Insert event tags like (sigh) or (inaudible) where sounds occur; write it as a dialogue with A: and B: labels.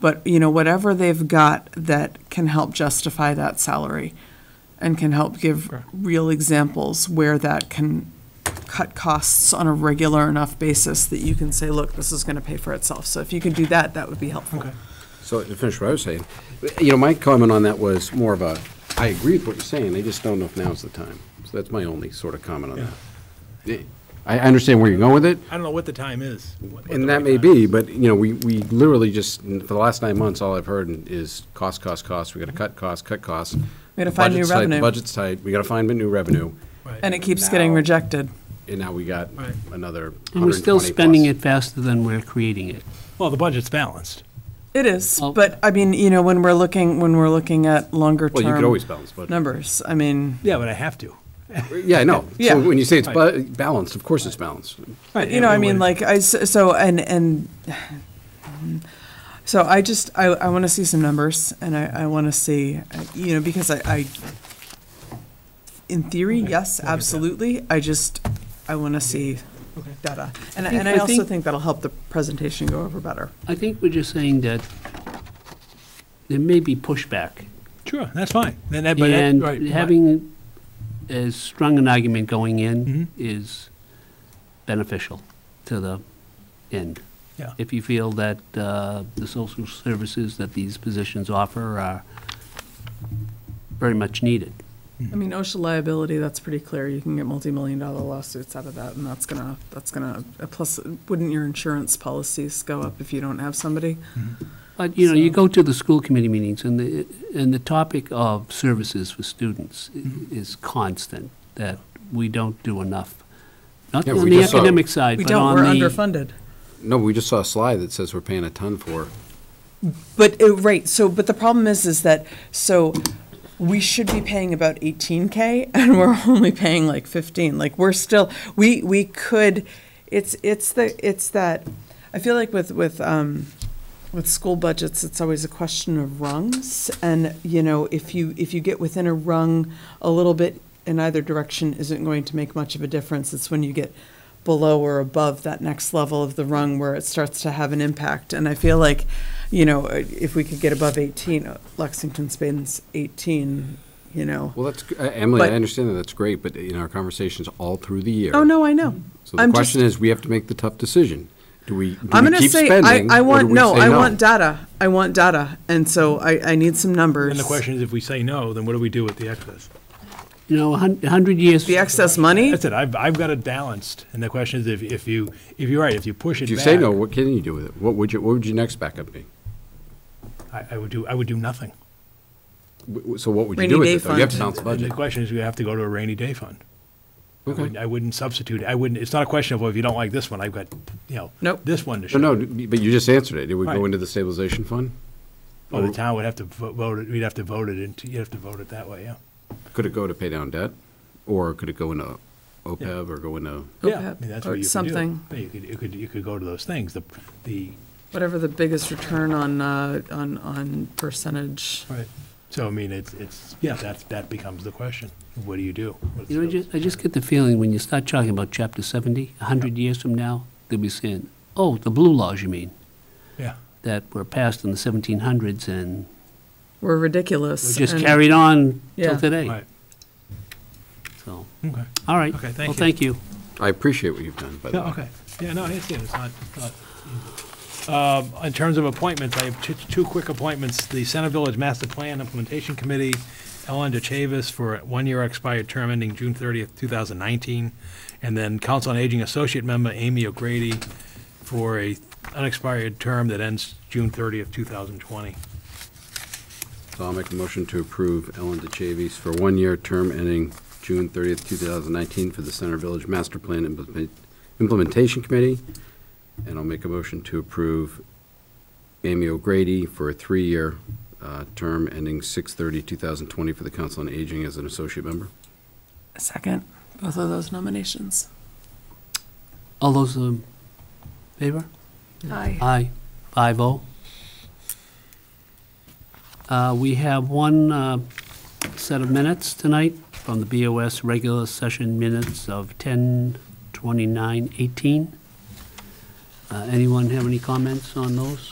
A: But, you know, whatever they've got that can help justify that salary and can help give real examples where that can cut costs on a regular enough basis that you can say, look, this is going to pay for itself. So if you could do that, that would be helpful.
B: So to finish what I was saying, you know, my comment on that was more of a, I agree with what you're saying, I just don't know if now's the time. So that's my only sort of comment on that. Eh, I I understand where you're going with it,
C: I don't know what the time is. what- what the
B: and that
C: right
B: may
C: time
B: be,
C: is.
B: but, you know, we, we literally just, for the last nine months, all I've heard is cost, cost, cost, we gotta cut costs, cut costs.
A: We gotta find new
B: Budget's tight,
A: revenue.
B: Budget's tight, we gotta find new revenue,
C: Right.
A: And it keeps getting
B: Now-
A: rejected.
B: and now we got
C: Right.
B: another
D: And we're
B: 120
D: still
B: plus.
D: spending it faster than we're creating it.
C: Well, the budget's balanced.
A: It is,
D: Well-
A: but I mean, you know, when we're looking, when we're looking at longer
B: Well,
A: term.
B: you could always balance budget.
A: Numbers, I mean,
C: Yeah, but I have to.
B: Yeah, I know.
A: Yeah.
B: So when you say it's
C: Right.
B: bu- balanced, of course it's balanced.
C: Right.
A: you know, I mean, like, I, s- so, and, and, (sighs) so I just, I, I want to see some numbers, and I, I want to see, uh, you know, because I, I, in theory, yes, absolutely, I just, I want to see data. And, I-
D: think-
A: and I
D: I
A: also
D: think-
A: think that'll help the presentation go over better.
D: I think we're just saying that there may be pushback.
C: Sure, that's fine. Then that, but that-
D: And
C: right, right.
D: having as strong an argument going
C: Mm-hmm.
D: in is beneficial to the end.
C: Yeah.
D: If you feel that uh, the social services that these positions offer are very much needed.
A: I mean, OSHA liability, that's pretty clear. You can get multi-million dollar lawsuits out of that, and that's gonna, that's gonna, uh, plus, wouldn't your insurance policies go up if you don't have somebody?
D: But, you know, you
A: So-
D: go to the school committee meetings, and the, and the topic of services for students i-
C: Mm-hmm.
D: is constant, that we don't do enough. Not
B: Yeah,
D: on
B: we
D: the
B: just saw-
D: academic side,
A: We
D: but
A: don't,
D: on
A: we're
D: the.
A: underfunded.
B: No, we just saw a slide that says we're paying a ton for.
A: But, uh, right, so, but the problem is, is that, so, we should be paying about eighteen K, (laughs) and we're only paying like fifteen, like, we're still, we, we could, it's, it's the, it's that, I feel like with, with, um, with school budgets, it's always a question of rungs, and, you know, if you, if you get within a rung, a little bit in either direction isn't going to make much of a difference, it's when you get below or above that next level of the rung where it starts to have an impact, and I feel like, you know, if we could get above eighteen, uh, Lexington Spain's eighteen, you know.
B: Well, that's, uh, Emily, I
A: But-
B: understand that, that's great, but uh, in our conversations all through the year.
A: Oh, no, I know.
B: Mm-hmm. So the
A: I'm
B: question
A: just-
B: is, we have to make the tough decision. Do we, do
A: I'm
B: we
A: gonna
B: keep
A: say, I,
B: spending?
A: I
B: or do
A: want,
B: we
A: no,
B: say
A: I want data, I want data, and so I, I need some numbers.
C: And the question is, if we say no, then what do we do with the excess?
D: You know, a hun- a hundred years.
A: The excess money,
C: That's it. I've, I've got it balanced. And the question is, if, if you, if you're right, if you push it
B: If
C: back.
B: you say no, what can you do with it? What would you, what would your next backup be?
C: I, I would do, I would do nothing.
B: W- w- So what would you
A: Rainy
B: do with
A: day
B: it, though? You have to
A: fund.
B: balance the
C: And the
B: budget.
C: question is, we have to go to a rainy day fund. I wouldn't- I wouldn't substitute. I wouldn't, it's not a question of, well, if you don't like this one, I've got, you know.
A: Nope.
C: This one to show.
B: No, no, but you just answered it. It would go
C: Right.
B: into the stabilization fund?
C: Well, the town would have to vo- vote it, we'd have to vote it into, you'd have to vote it that way, yeah.
B: Could it go to pay down debt? Or could it go into OPEB E or go into?
C: Yeah, I
A: OPEB
C: mean, that's
A: or
C: what you could do.
A: something.
C: Yeah, You could, you could, you could go to those things, the, the,
A: whatever the biggest return on, uh, on, on percentage.
C: right, so I mean, it's, it's, yeah, that's, that becomes the question. What do you do? What's
D: You know, I
C: the-
D: just, I just get the feeling when you start talking about chapter seventy, a hundred years from now, they'll be saying, oh, the blue laws, you mean,
C: Yeah,
D: that were passed in the seventeen hundreds and
A: We're ridiculous.
D: just
A: and-
D: carried on
A: Yeah.
D: till today,
C: right,
D: so,
C: okay.
D: all right.
C: Okay, thank
D: Well,
C: you.
D: thank you.
B: I appreciate what you've done, by the
C: Yeah,
B: way.
C: okay. Yeah, no, I understand, it's not, it's not easy. Um, In terms of appointments, I have two, two quick appointments, the Center Village Master Plan Implementation Committee, Ellen DeChavis for a one-year expired term ending June 30th, 2019, and then Council on Aging Associate Member Amy O'Grady for a unexpired term that ends June 30th, 2020.
B: So I'll make a motion to approve Ellen DeChavies for a one-year term ending June 30th, 2019 for the Center Village Master Plan Implement- Implementation Committee. And I'll make a motion to approve Amy O'Grady for a three-year uh, term ending 6/30/2020 for the Council on Aging as an associate member.
A: Second, both of those nominations.
D: All those in favor?
A: Aye.
D: Aye, five oh. Uh, We have one uh, set of minutes tonight from the BOS regular session minutes of 10:29:18. Uh, Anyone have any comments on those?